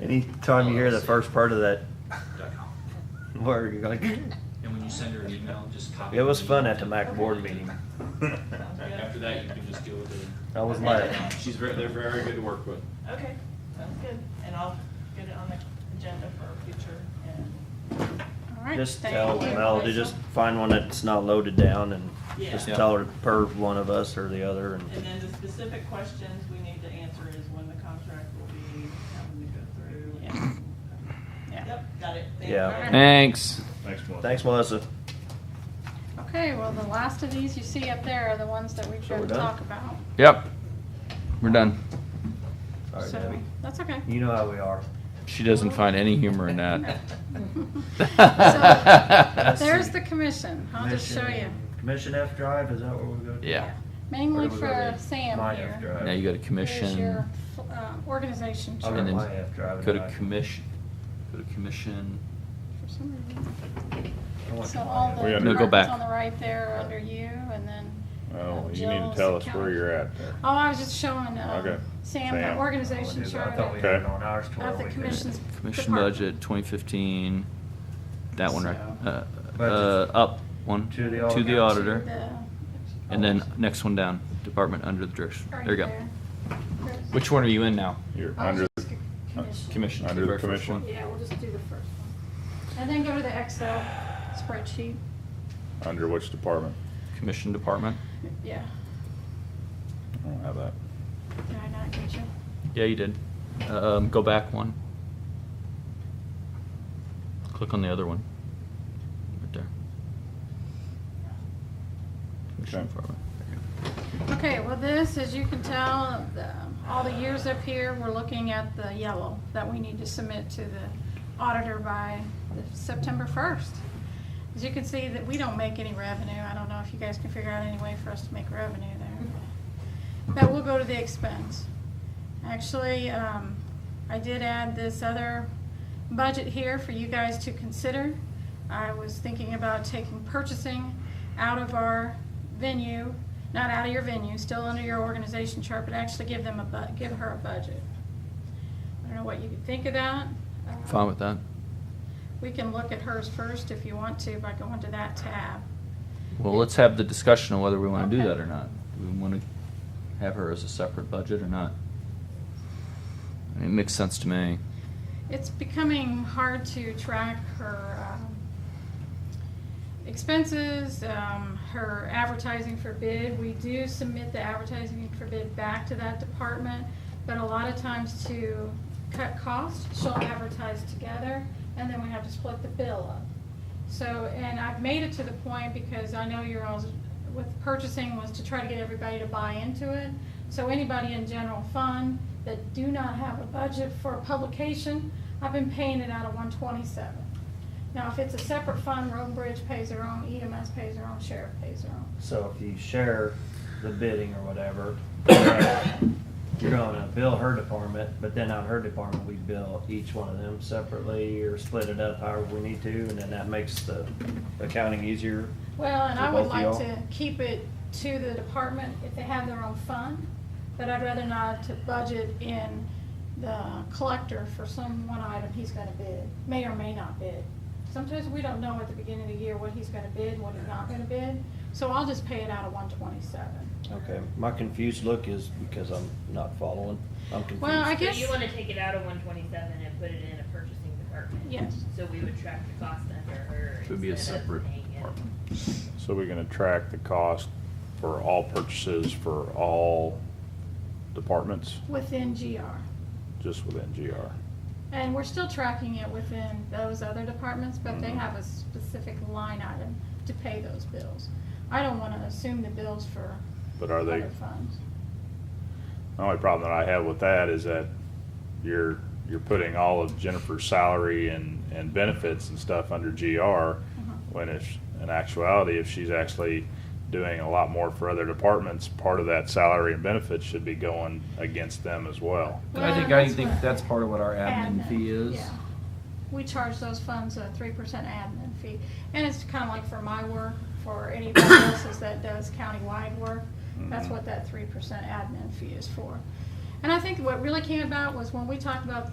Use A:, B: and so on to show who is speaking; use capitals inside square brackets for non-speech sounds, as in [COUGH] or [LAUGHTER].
A: Anytime you hear the first part of that
B: LLC.com.
A: word, you're like,
B: And when you send her an email, just copy.
A: it was
B: the
A: fun
B: email.
A: at the Mac board meeting.
B: After that, you can just deal with it.
A: I was mad.
C: She's very, they're very good to work with.
D: Okay, sounds good, and I'll get it on the agenda for future, and,
E: All right,
A: Just
E: thank
A: tell
E: you.
A: Mel to just find one that's not loaded down and just
D: Yeah.
A: tell her per one of us or the other and
D: and then the specific questions we need to answer is when the contract will be, having to go through,
E: Yeah.
D: and, yep, got it. Thank
A: Yeah.
D: you.
F: Thanks.
C: Thanks, Melissa.
A: thanks Melissa.
E: Okay, well, the last of these you see up there are the ones that we've
A: So we're
E: got to
A: done?
E: talk about.
F: Yep. We're done.
A: Sorry
E: So,
A: Debbie.
E: That's okay.
A: You know how we are.
F: She doesn't find any humor in that.
E: [LAUGHS]
A: [LAUGHS] Let's
E: There's
A: see.
E: the commission. I'll just show you.
A: Commission- Commission F drive, is that where we go?
F: yeah.
E: Mainly
A: Where do we go
E: for
A: to?
E: Sam
A: My F
E: here.
A: drive.
F: Now you go to
E: There's your
F: commission.
E: uh, organization
A: I'll
E: chart.
A: go
F: And
A: to
F: then
A: my F drive. and
F: Go to
A: I-
F: commission. Go to commission.
E: For some reason.
A: I want
E: So
A: my
E: all
A: F
E: the
G: We
A: drive.
G: gotta- No,
F: go back.
E: departments on the right there are under you and then.
G: Oh,
E: uh,
G: you need to
E: Jill's
G: tell us where
E: account.
G: you're at there.
E: Oh, I was just showing um,
G: Okay.
E: Sam the
G: Sam.
A: I wanna
E: organization
A: do that.
E: chart
A: I thought we
E: of
A: had
G: Okay.
A: it on ours to where
E: of the
A: we could-
E: commission's
F: Commission
E: department.
F: budget 2015. That one right. Uh, uh,
A: Budget.
F: up one to
A: To the
F: the
A: auditor.
E: To
F: auditor,
E: the-
F: and then next one down. Department under the direction.
E: Right
F: There you go.
E: there.
F: Which one are you in now?
G: You're
E: Oh,
G: under,
E: just commission.
F: Commission.
G: Under the
F: very first
G: commission.
F: one.
E: Yeah, we'll just do the first one. And then go to the Excel spreadsheet.
G: uh, under which department?
F: Commission department.
E: Yeah,
G: I don't have that.
E: did I not get you?
F: Yeah, you did. Um, go back one. Click on the other one. Right there. Commission
G: Okay.
F: department. There you go.
E: Okay, well, this, as you can tell, the- all the years up here, we're looking at the yellow that we need to submit to the auditor by the September 1st. As you can see that we don't make any revenue. I don't know if you guys can figure out any way for us to make revenue there. But we'll go to the expense. Actually, um, I did add this other budget here for you guys to consider. I was thinking about taking purchasing out of our venue, not out of your venue, still under your organization chart, but actually give them a bu, give her a budget. I don't know what you could think of that. Uh,
F: Fine with that.
E: We can look at hers first if you want to by going to that tab.
F: Well, let's have the discussion on whether we want to do
E: Okay.
F: that or not. Do we want to have her as a separate budget or not? It makes sense to me.
E: It's becoming hard to track her um, expenses, um, her advertising for bid. We do submit the advertising for bid back to that department, but a lot of times to cut costs, she'll advertise together, and then we have to split the bill up. So, and I've made it to the point, because I know you're all, with purchasing was to try to get everybody to buy into it. So anybody in general fund that do not have a budget for publication, I've been paying it out of one twenty-seven. Now, if it's a separate fund, Road and Bridge pays their own, EMS pays their own, Sheriff pays their own.
A: So if you share the bidding or whatever, you're gonna bill her department, but then on her department, we bill each one of them separately or split it up however we need to, and then that makes the accounting easier.
E: Well, and
A: For
E: I would
A: both of
E: like
A: y'all?
E: to keep it to the department if they have their own fund, but I'd rather not to budget in the collector for some one item he's gonna bid, may or may not bid. Sometimes we don't know at the beginning of the year what he's gonna bid, what he's not gonna bid, so I'll just pay it out of one twenty-seven.
A: Okay, my confused look is because I'm not following. I'm confused.
E: Well, I
H: But
E: guess,
H: you wanna take it out of one twenty-seven and put it in a purchasing department?
E: Yes.
H: So we would track the cost under her.
F: It would be a
H: instead of
F: separate
H: paying it.
F: department.
G: So we're gonna track the cost for all purchases for all departments,
E: within GR.
G: just within GR.
E: And we're still tracking it within those other departments, but
G: Mm-hmm.
E: they have a specific line item to pay those bills. I don't wanna assume the bills for
G: But are they,
E: other funds.
G: the only problem that I have with that is that you're, you're putting all of Jennifer's salary and, and benefits and stuff under GR. When it's, in actuality, if she's actually doing a lot more for other departments, part of that salary and benefits should be going against them as well.
F: I think,
E: Well,
F: I
E: that's
F: think
E: what-
F: that's part of what our admin fee is.
E: yeah. We charge those funds a three percent admin fee, and it's kinda like for my work, for
F: [COUGHS]
E: anybody else's that does countywide work, that's
F: Mm-hmm.
E: what that three percent admin fee is for. And I think what really came about was when we talked about